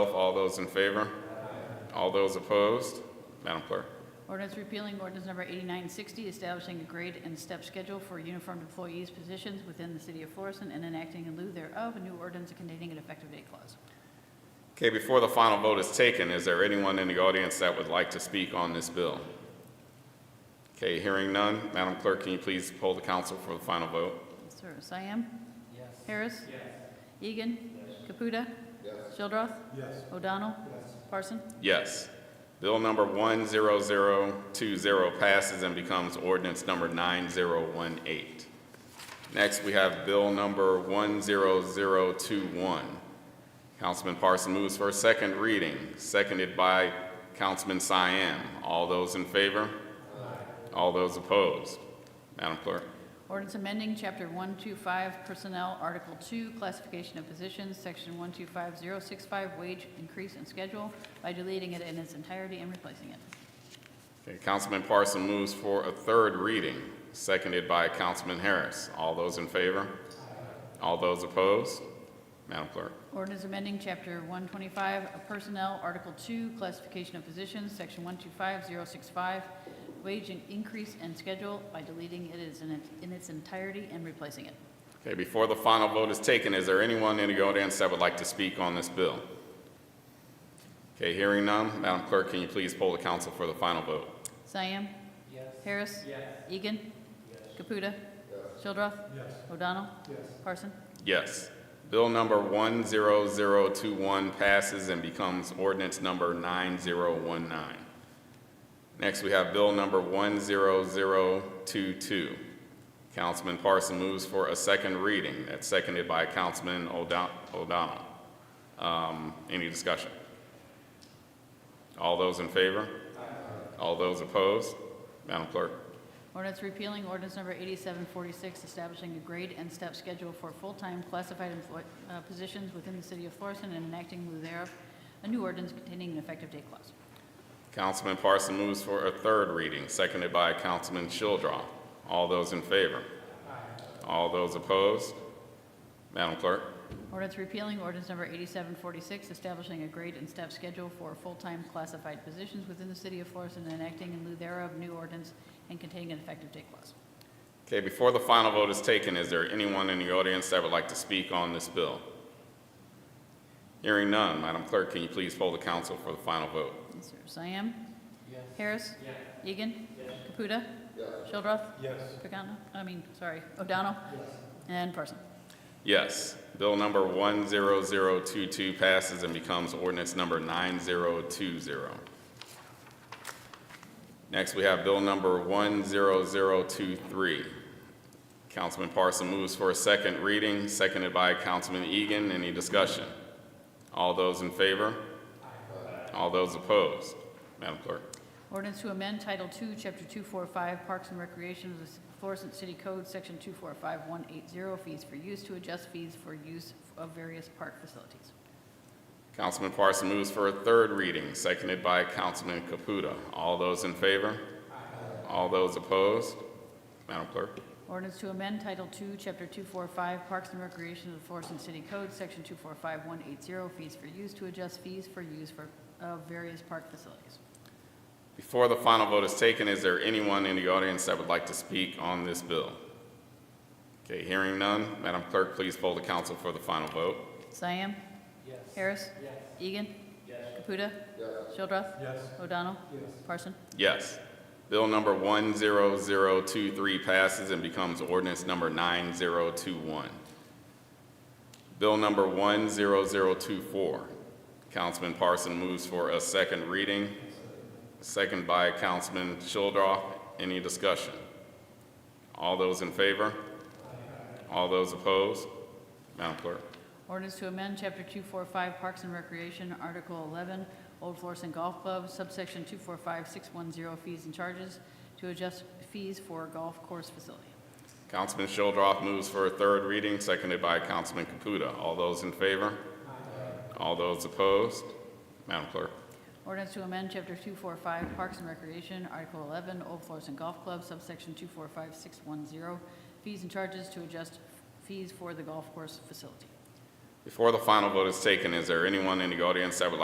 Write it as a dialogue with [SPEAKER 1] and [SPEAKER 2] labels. [SPEAKER 1] All those in favor? All those opposed? Madam Clerk.
[SPEAKER 2] Ordinance repealing ordinance number 8960, establishing a grade and step schedule for uniformed employees' positions within the city of Florissant and enacting in lieu thereof a new ordinance containing an effective date clause.
[SPEAKER 1] Okay, before the final vote is taken, is there anyone in the audience that would like to speak on this bill? Okay, hearing none, Madam Clerk, can you please poll the council for the final vote?
[SPEAKER 2] Sir, Siam? Yes. Harris? Yes. Egan? Yes. Caputa? Yes. Shildroth? Yes. O'Donnell? Yes. Parson?
[SPEAKER 1] Yes. Bill number 10020 passes and becomes ordinance number 9018. Next, we have bill number 10021. Councilman Parson moves for a second reading, seconded by Councilman Cyan. All those in favor? All those opposed? Madam Clerk.
[SPEAKER 2] Ordinance amending Chapter 125 Personnel, Article 2 Classification of Positions, Section 125065 Wage Increase and Schedule by deleting it in its entirety and replacing it.
[SPEAKER 1] Okay, Councilman Parson moves for a third reading, seconded by Councilman Harris. All those in favor? All those opposed? Madam Clerk.
[SPEAKER 2] Ordinance amending Chapter 125 of Personnel, Article 2, Classification of Positions, Section 125065, Wage and Increase and Schedule by deleting it is in it- in its entirety and replacing it.
[SPEAKER 1] Okay, before the final vote is taken, is there anyone in the audience that would like to speak on this bill? Okay, hearing none, Madam Clerk, can you please poll the council for the final vote?
[SPEAKER 2] Siam, Yes. Harris? Yes. Egan? Yes. Caputa? Yes. Shildroth? Yes. O'Donnell? Yes. Parson?
[SPEAKER 1] Yes. Bill number 10021 passes and becomes ordinance number 9019. Next, we have bill number 10022. Councilman Parson moves for a second reading. That's seconded by Councilman O'Don- O'Donnell. Um, Any discussion? All those in favor? All those opposed? Madam Clerk.
[SPEAKER 2] Ordinance repealing ordinance number 8746, establishing a grade and step schedule for full-time classified employ- uh, positions within the city of Florissant and enacting in lieu thereof, a new ordinance containing an effective date clause.
[SPEAKER 1] Councilman Parson moves for a third reading, seconded by Councilman Childrath. All those in favor? All those opposed? Madam Clerk.
[SPEAKER 2] Ordinance repealing ordinance number 8746, establishing a grade and step schedule for full-time classified positions within the city of Florissant and enacting in lieu thereof, new ordinance and containing an effective date clause.
[SPEAKER 1] Okay, before the final vote is taken, is there anyone in the audience that would like to speak on this bill? Hearing none, Madam Clerk, can you please poll the council for the final vote?
[SPEAKER 2] Yes, sir. Siam, Yes. Harris? Yes. Egan? Yes. Caputa? Yes. Shildroth? Yes. Pagano, I mean, sorry, O'Donnell? Yes. And Parson.
[SPEAKER 1] Yes. Bill number 10022 passes and becomes ordinance number 9020. Next, we have bill number 10023. Councilman Parson moves for a second reading, seconded by Councilman Egan. Any discussion? All those in favor? All those opposed? Madam Clerk.
[SPEAKER 2] Ordinance to amend Title II, Chapter 245, Parks and Recreation of the Florissant City Code, Section 245180, fees for use to adjust fees for use of various park facilities.
[SPEAKER 1] Councilman Parson moves for a third reading, seconded by Councilman Caputa. All those in favor? All those opposed? Madam Clerk.
[SPEAKER 2] Ordinance to amend Title II, Chapter 245, Parks and Recreation of the Florissant City Code, Section 245180, fees for use to adjust fees for use for, of various park facilities.
[SPEAKER 1] Before the final vote is taken, is there anyone in the audience that would like to speak on this bill? Okay, hearing none, Madam Clerk, please poll the council for the final vote.
[SPEAKER 2] Siam, Yes. Harris? Yes. Egan? Yes. Caputa? Yes. Shildroth? Yes. O'Donnell? Yes. Parson?
[SPEAKER 1] Yes. Bill number 10023 passes and becomes ordinance number 9021. Bill number 10024, Councilman Parson moves for a second reading, second by Councilman Childrath. Any discussion? All those in favor? All those opposed? Madam Clerk.
[SPEAKER 2] Ordinance to amend Chapter 245 Parks and Recreation, Article 11, Old Florissant Golf Club, subsection 245610 fees and charges to adjust fees for golf course facility.
[SPEAKER 1] Councilman Shildroth moves for a third reading, seconded by Councilman Caputa. All those in favor? All those opposed? Madam Clerk.
[SPEAKER 2] Ordinance to amend Chapter 245 Parks and Recreation, Article 11, Old Florissant Golf Club, subsection 245610 fees and charges to adjust fees for the golf course facility.
[SPEAKER 1] Before the final vote is taken, is there anyone in the audience that would like